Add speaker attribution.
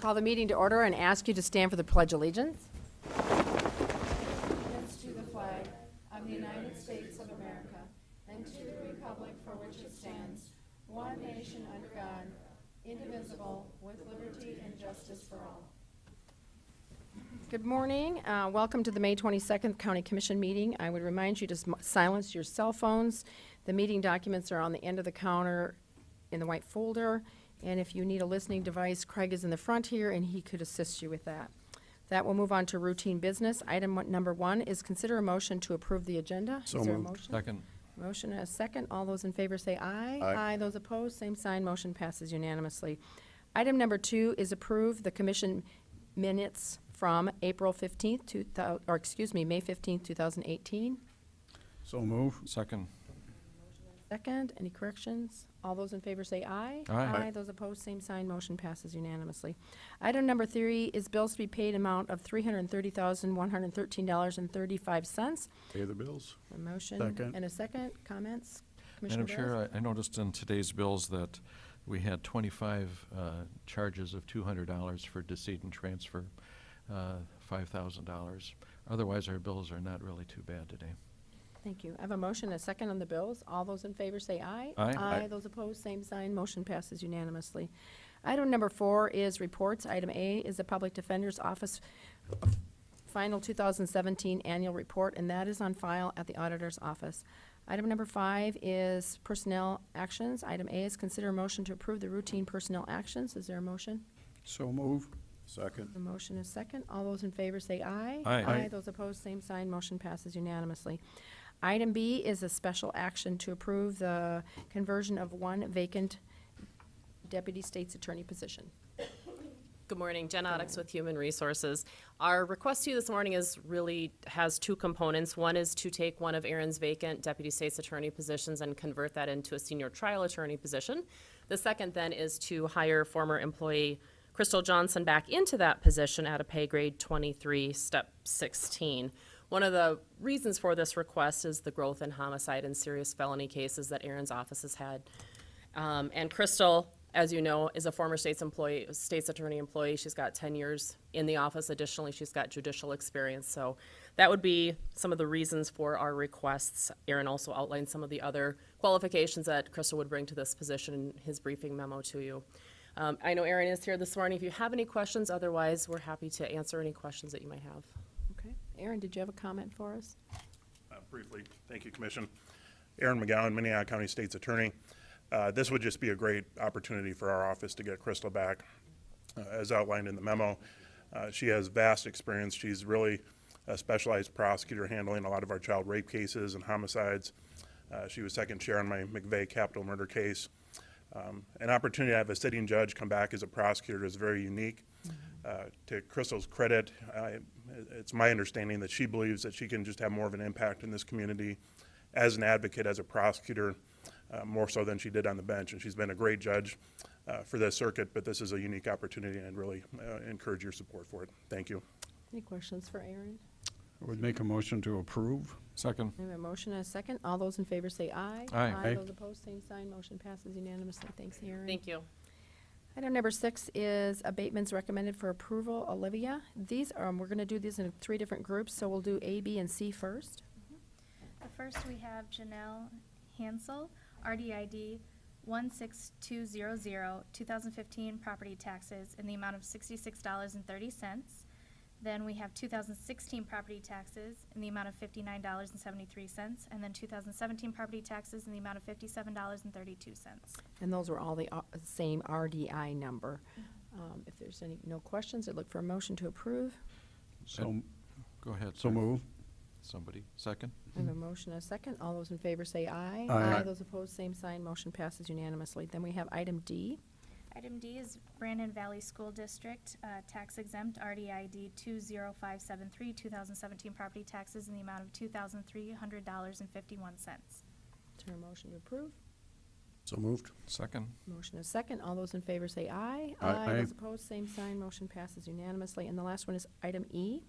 Speaker 1: Call the meeting to order and ask you to stand for the Pledge of Allegiance. Good morning. Uh, Welcome to the May 22nd County Commission meeting. I would remind you to sm- silence your cell phones. The meeting documents are on the end of the counter in the white folder, and if you need a listening device, Craig is in the front here, and he could assist you with that. That will move on to routine business. Item one- number one is consider a motion to approve the agenda.
Speaker 2: So
Speaker 1: Is there a
Speaker 2: moved.
Speaker 1: motion?
Speaker 3: Second.
Speaker 1: Motion and a second. All those in favor say aye.
Speaker 2: Aye.
Speaker 1: Those opposed, same sign. Motion passes unanimously. Item number two is approve the commission minutes from April 15th, two thou- or excuse me, May 15th, 2018.
Speaker 2: So move.
Speaker 3: Second.
Speaker 1: Second, any corrections? All those in favor say aye.
Speaker 3: Aye. Aye.
Speaker 1: Those opposed, same sign. Motion passes unanimously. Item number three is bills to be paid amount of $330,113.35.
Speaker 2: Pay the bills.
Speaker 1: A motion
Speaker 2: Second.
Speaker 1: and a second. Comments? Commissioner
Speaker 3: Madam
Speaker 1: Barris?
Speaker 3: Chair, I I noticed in today's bills that we had 25 uh, charges of $200 for decedent transfer, uh, $5,000. Otherwise, our bills are not really too bad today.
Speaker 1: Thank you. I have a motion and a second on the bills. All those in favor say aye.
Speaker 3: Aye.
Speaker 1: Aye.
Speaker 3: Aye.
Speaker 1: Those opposed, same sign. Motion passes unanimously. Item number four is reports. Item A is the Public Defender's Office Final 2017 Annual Report, and that is on file at the Auditor's Office. Item number five is personnel actions. Item A is consider a motion to approve the routine personnel actions. Is there a motion?
Speaker 2: So move. Second.
Speaker 1: The motion is second. All those in favor say aye.
Speaker 3: Aye.
Speaker 1: Aye.
Speaker 3: Aye.
Speaker 1: Those opposed, same sign. Motion passes unanimously. Item B is a special action to approve the conversion of one vacant deputy state's attorney position.
Speaker 4: Good morning, Jen Oddix with Human Resources. Our request to you this morning is really, has two components. One is to take one of Aaron's vacant deputy state's attorney positions and convert that into a senior trial attorney position. The second then is to hire former employee Crystal Johnson back into that position at a pay grade 23, step 16. One of the reasons for this request is the growth in homicide and serious felony cases that Aaron's office has had um, and Crystal, as you know, is a former state's employee, state's attorney employee. She's got ten years in the office. Additionally, she's got judicial experience. So that would be some of the reasons for our requests. Aaron also outlined some of the other qualifications that Crystal would bring to this position in his briefing memo to you. Um, I know Aaron is here this morning. If you have any questions, otherwise, we're happy to answer any questions that you might have.
Speaker 1: Okay. Aaron, did you have a comment for us?
Speaker 5: Uh, Briefly, thank you, Commission. Aaron McGowan, Minnehaha County State's Attorney. Uh, This would just be a great opportunity for our office to get Crystal back. Uh, As outlined in the memo, uh, she has vast experience. She's really a specialized prosecutor handling a lot of our child rape cases and homicides. Uh, She was second chair on my McVeigh capital murder case. Um, An opportunity to have a sitting judge come back as a prosecutor is very unique. Uh, To Crystal's credit, I- it's my understanding that she believes that she can just have more of an impact in this community as an advocate, as a prosecutor, uh, more so than she did on the bench. And she's been a great judge uh, for this circuit, but this is a unique opportunity and I'd really uh, encourage your support for it. Thank you.
Speaker 1: Any questions for Aaron?
Speaker 2: I would make a motion to approve.
Speaker 3: Second.
Speaker 1: I have a motion and a second. All those in favor say aye.
Speaker 3: Aye.
Speaker 2: Aye.
Speaker 1: Those opposed, same sign. Motion passes unanimously. Thanks, Aaron.
Speaker 4: Thank you.
Speaker 1: Item number six is abatements recommended for approval. Olivia, these, um, we're gonna do these in three different groups, so we'll do A, B, and C first.
Speaker 6: The first we have Janelle Hansel, RDID 16200, 2015 property taxes in the amount of $66.30. Then we have 2016 property taxes in the amount of $59.73. And then 2017 property taxes in the amount of $57.32.
Speaker 1: And those were all the uh, same RDI number. Um, If there's any, no questions, I'd look for a motion to approve.
Speaker 2: So,
Speaker 3: Go ahead.
Speaker 2: so
Speaker 3: sir.
Speaker 2: move.
Speaker 3: Somebody. Second.
Speaker 1: I have a motion and a second. All those in favor say aye.
Speaker 2: Aye.
Speaker 1: Those opposed, same sign. Motion passes unanimously. Then we have item D.
Speaker 6: Item D is Brandon Valley School District, uh, tax exempt RDID 20573, 2017 property taxes in the amount of $2,300.51.
Speaker 1: Is there a motion to approve?
Speaker 2: So moved.
Speaker 3: Second.
Speaker 1: Motion is second. All those in favor say aye.
Speaker 2: Aye. Aye.
Speaker 1: Those opposed, same sign. Motion passes unanimously. And the last one is item E.